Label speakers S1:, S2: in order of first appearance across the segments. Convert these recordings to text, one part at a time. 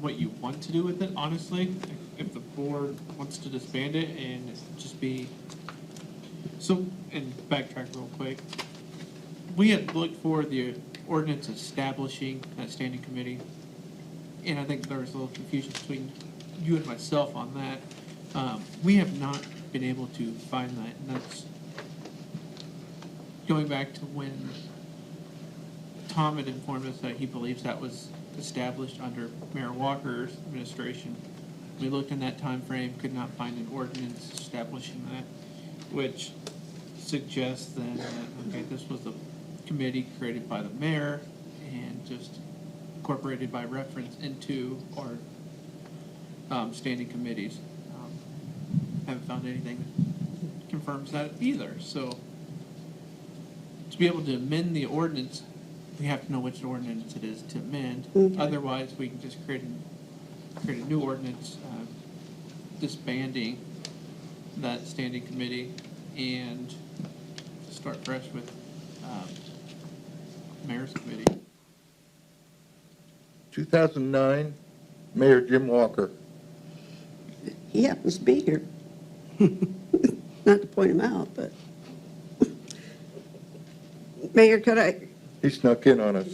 S1: what you want to do with it, honestly. If the board wants to disband it and just be, so, and backtrack real quick. We had looked for the ordinance establishing that standing committee, and I think there was a little confusion between you and myself on that. Um, We have not been able to find that, and that's going back to when Tom had informed us that he believes that was established under Mayor Walker's administration. We looked in that time frame, could not find an ordinance establishing that, which suggests then that, okay, this was a committee created by the mayor and just incorporated by reference into our um, standing committees. Um, Haven't found anything that confirms that either, so to be able to amend the ordinance, we have to know which ordinance it is to amend. Otherwise, we can just create, a- create a new ordinance uh, disbanding that standing committee and start fresh with um, mayor's committee.
S2: 2009, Mayor Jim Walker.
S3: He happens to be here. Not to point him out, but. Mayor, could I,
S2: He snuck in on us.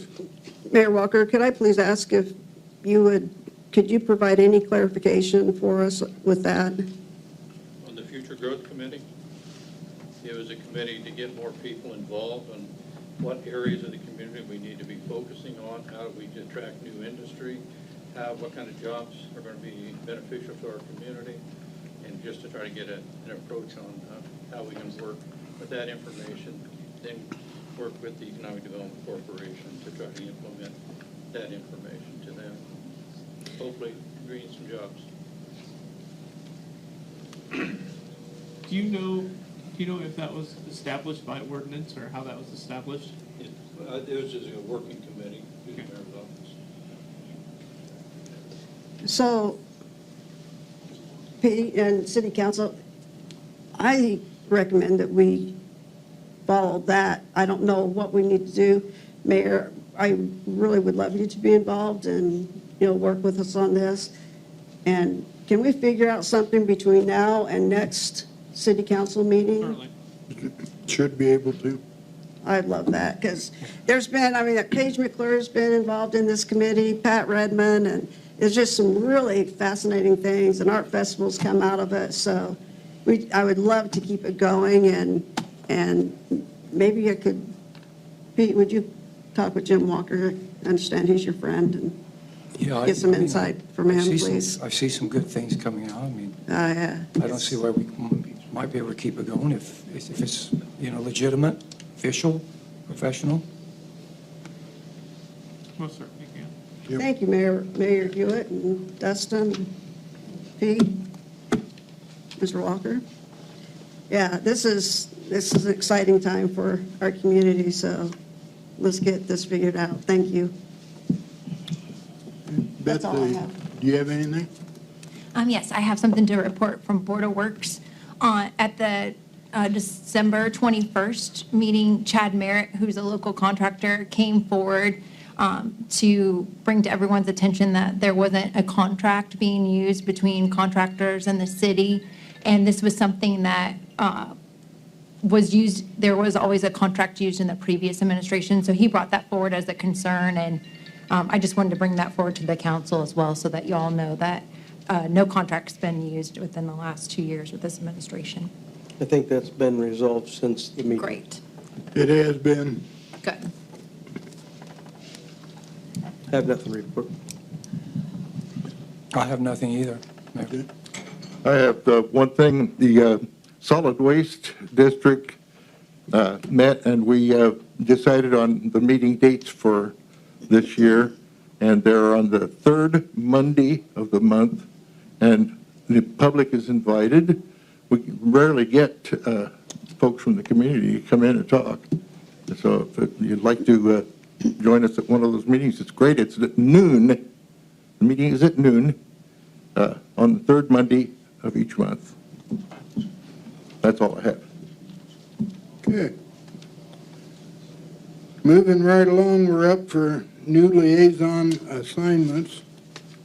S3: Mayor Walker, could I please ask if you would, could you provide any clarification for us with that?
S4: on the Future Growth Committee. It was a committee to get more people involved on what areas of the community we need to be focusing on, how do we attract new industry, how, what kind of jobs are going to be beneficial to our community, and just to try to get a- an approach on uh, how we can work with that information, then work with the Economic Development Corporation to try to implement that information to them. Hopefully, create some jobs.
S1: Do you know, do you know if that was established by ordinance or how that was established?
S4: It uh, it was just a working committee through the mayor's office.
S3: So, Pete and City Council, I recommend that we follow that. I don't know what we need to do. Mayor, I really would love you to be involved and, you know, work with us on this. And can we figure out something between now and next city council meeting?
S1: Certainly.
S5: Should be able to.
S3: I'd love that, because there's been, I mean, uh, Paige McClure's been involved in this committee, Pat Redmond, and there's just some really fascinating things, and art festivals come out of it, so we, I would love to keep it going, and, and maybe it could, Pete, would you talk with Jim Walker? I understand he's your friend, and get some insight from him, please.
S6: I see some good things coming out. I mean,
S3: I, uh,
S6: I don't see why we might be able to keep it going if, if it's, you know, legitimate, official, professional.
S1: Most certainly can.
S3: Thank you, Mayor, Mayor Hewitt, and Dustin, Pete, Mr. Walker. Yeah, this is, this is an exciting time for our community, so let's get this figured out. Thank you. That's
S5: Beth,
S3: all I
S5: uh,
S3: have.
S5: do you have anything?
S7: Um, yes, I have something to report from Board of Works. Uh, at the, uh, December twenty-first meeting, Chad Merritt, who's a local contractor, came forward, um, to bring to everyone's attention that there wasn't a contract being used between contractors and the city. And this was something that, uh, was used, there was always a contract used in the previous administration, so he brought that forward as a concern, and um, I just wanted to bring that forward to the council as well, so that you all know that uh, no contract's been used within the last two years with this administration.
S8: I think that's been resolved since the meeting.
S7: Great,
S5: It has been.
S7: good.
S8: I Have nothing to report.
S6: I have nothing either. Mayor.
S2: I have uh, one thing, the uh, Solid Waste District uh, met, and we uh, decided on the meeting dates for this year, and they're on the third Monday of the month, and the public is invited. We rarely get uh, folks from the community to come in and talk. So if you'd like to uh, join us at one of those meetings, it's great. It's at noon. The meeting is at noon uh, on the third Monday of each month. That's all I have.
S5: Okay. Moving right along, we're up for new liaison assignments.